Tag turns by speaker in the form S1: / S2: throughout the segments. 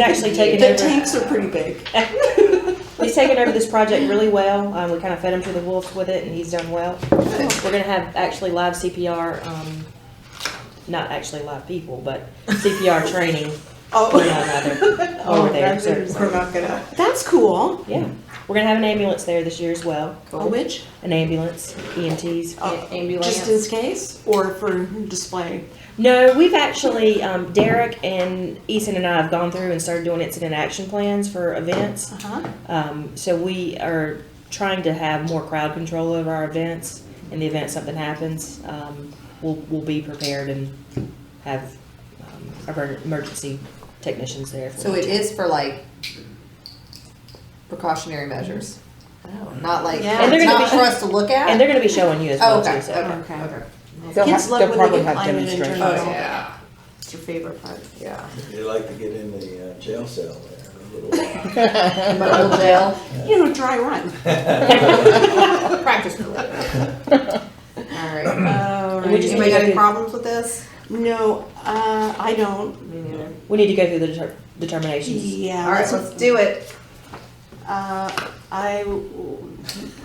S1: actually taken
S2: The
S1: over.
S2: tanks are pretty big.
S1: He's taken over this project really well. Um, we kind of fed him to the wolves with it, and he's done well. We're gonna have actually live CPR, um, not actually live people, but CPR training
S2: Oh.
S1: one another
S2: Oh,
S1: over there.
S2: that's-
S1: So,
S2: We're not gonna. That's cool.
S1: yeah, we're gonna have an ambulance there this year as well.
S2: A witch,
S1: An ambulance, E EMTs.
S2: Oh, just
S3: Ambulance.
S2: in case, or for display.
S1: No, we've actually, um, Derek and Eason and I have gone through and started doing incident action plans for events.
S2: Uh-huh.
S1: Um, so we are trying to have more crowd control over our events. In the event something happens, um, we'll, we'll be prepared and have, um, our emergency technicians there. if we
S3: So
S1: need
S3: it is for like precautionary measures, not like,
S2: Yeah. And
S1: they're
S3: it's
S1: gonna
S3: not
S1: be-
S3: for us to look
S1: to.
S3: at?
S1: And they're gonna be showing you as
S3: Oh,
S1: well too,
S3: okay,
S1: so.
S3: okay, okay.
S4: They'll
S2: Kids
S4: have-
S2: love
S4: they'll
S2: when they
S4: probably
S2: get
S4: have
S2: climate and turn
S4: demonstrations.
S2: it
S3: Oh,
S2: on.
S3: yeah,
S2: It's your favorite part.
S3: yeah.
S5: They like to get in the uh, jail cell there.
S3: In my old jail,
S2: You know, dry run.
S3: practice for later. All right.
S2: All
S1: We just need
S3: Anybody got
S1: to
S3: any
S1: go
S3: problems with this?
S2: No, uh, I don't.
S3: Me neither.
S1: through- we need to go through the deter- determinations.
S2: Yeah.
S3: All right,
S2: that's-
S3: let's do it.
S2: Uh, I w-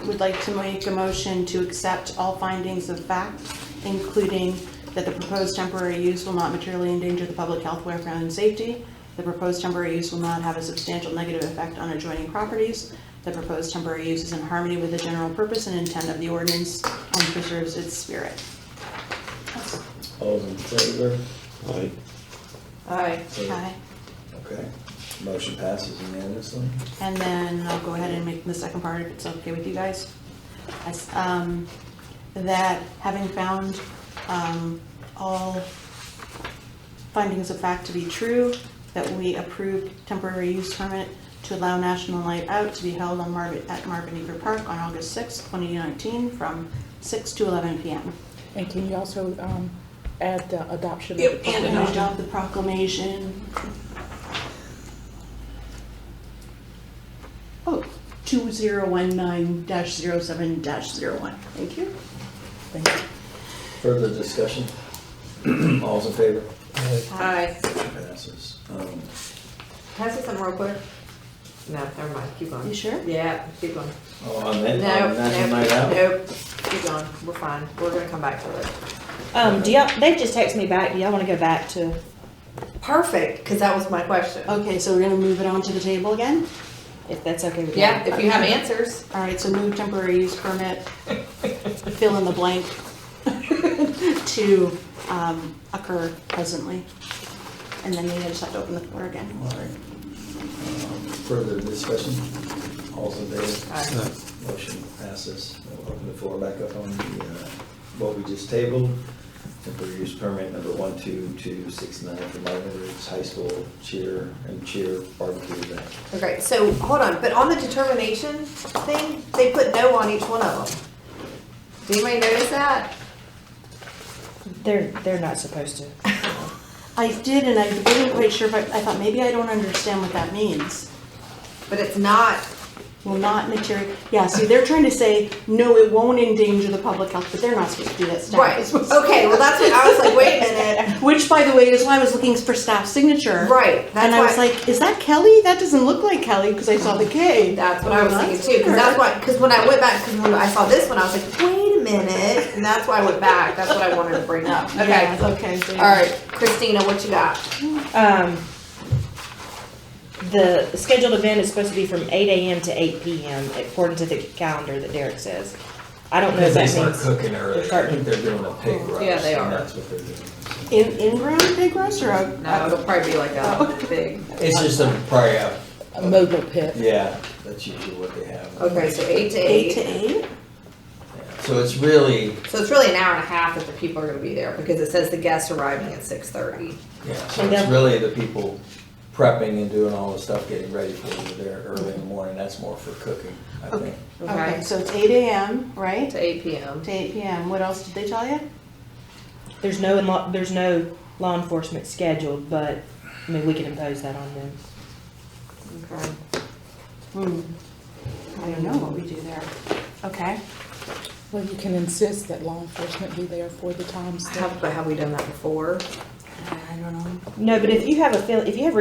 S2: would like to make a motion to accept all findings of fact, including that the proposed temporary use will not materially endanger the public health, welfare, and safety. The proposed temporary use will not have a substantial negative effect on adjoining properties. The proposed temporary use is in harmony with the general purpose and intent of the ordinance and preserves its spirit.
S5: All in favor?
S6: Aye.
S3: All right.
S2: Okay,
S5: Okay, motion passes unanimously.
S2: and then I'll go ahead and make the second part if it's okay with you guys. I s- um, that having found um, all findings of fact to be true, that we approved temporary use permit to allow National Night Out to be held on Marvin, at Marvin Eager Park on August 6, 2019, from 6 to 11 p.m.
S4: And can you also um, add the adoption? of the
S2: And
S4: proclamation?
S2: adopt the proclamation. Oh, 2019-07-01. Thank you.
S4: Thank you.
S5: Further discussion? All's in favor?
S3: Hi.
S5: Passes. Um,
S3: Can I say something real quick? No, never mind, keep
S2: You
S3: going.
S2: sure?
S3: Yeah, keep going.
S5: Oh, on that,
S3: No,
S5: on National Night Out?
S3: nope, nope, keep going, we're fine, we're gonna come back to it.
S1: Um, do y'all, they just texted me back, do y'all wanna go back to,
S3: Perfect, because that was my question.
S2: Okay, so we're gonna move it on to the table again?
S1: if that's okay with you?
S3: Yeah, if you have answers.
S2: All right, so move temporary use permit, fill in the blank, to um, occur presently. And then you just have to open the floor again.
S5: All right. Um, Further discussion? All's in favor?
S3: Aye.
S5: Motion passes. We'll open the floor back up on the, uh, what we just tabled. Temporary use permit number 12269 for Marvin Roots High School cheer and cheer barbecue event.
S3: Okay, so, hold on, but on the determination thing, they put no on each one of them. Did anybody notice that?
S1: They're, they're not supposed to.
S2: I did, and I wasn't quite sure, but I thought maybe I don't understand what that means.
S3: But it's not,
S2: Will not material, yeah, see, they're trying to say, no, it won't endanger the public health, but they're not supposed to do that stuff.
S3: right, okay, well, that's what, I was like, wait a minute,
S2: Which, by the way, is why I was looking for staff signature.
S3: right,
S2: And I was
S3: that's why,
S2: like, is that Kelly? That doesn't look like Kelly, because I saw the K.
S3: that's what I was thinking too, because that's why, because when I went back, because when I saw this one, I was like, wait a minute, and that's why I went back, that's what I wanted to bring up, okay.
S2: Yeah, Okay. so-
S3: All right, Christina, what you got?
S1: Um, the scheduled event is supposed to be from eight AM to eight PM, according to the calendar that Derek says. I don't know if
S5: Because they
S1: that
S5: start
S1: means,
S5: cooking early.
S1: They're starting-
S5: I think they're doing a pig roast.
S3: Yeah, they
S5: and
S3: are.
S5: That's what they're doing.
S2: In, in-ground pig roast or out?
S3: it'll probably be like a big.
S5: It's just a prior,
S4: A mobile pit.
S5: yeah, that's usually what they have.
S3: Okay, so eight to
S2: Eight to
S3: eight,
S2: eight?
S5: So it's really,
S3: so it's really an hour and a half that the people are gonna be there, because it says the guests arriving at six thirty.
S5: yeah, so
S1: And
S5: it's
S1: then-
S5: really the people prepping and doing all the stuff, getting ready for it there early in the morning. That's more for cooking, I
S2: Okay.
S5: think.
S2: Okay, so it's eight AM, right?
S3: To eight PM.
S2: To eight PM. What else did they tell you?
S1: there's no, law- there's no law enforcement scheduled, but, I mean, we can impose that on them.
S3: Okay.
S2: Hmm. I don't know what we do there. Okay.
S4: Well, you can insist that law enforcement be there for the times that.
S3: Have, but have we done that before?
S2: I don't know.
S1: No, but if you have a feel, if you have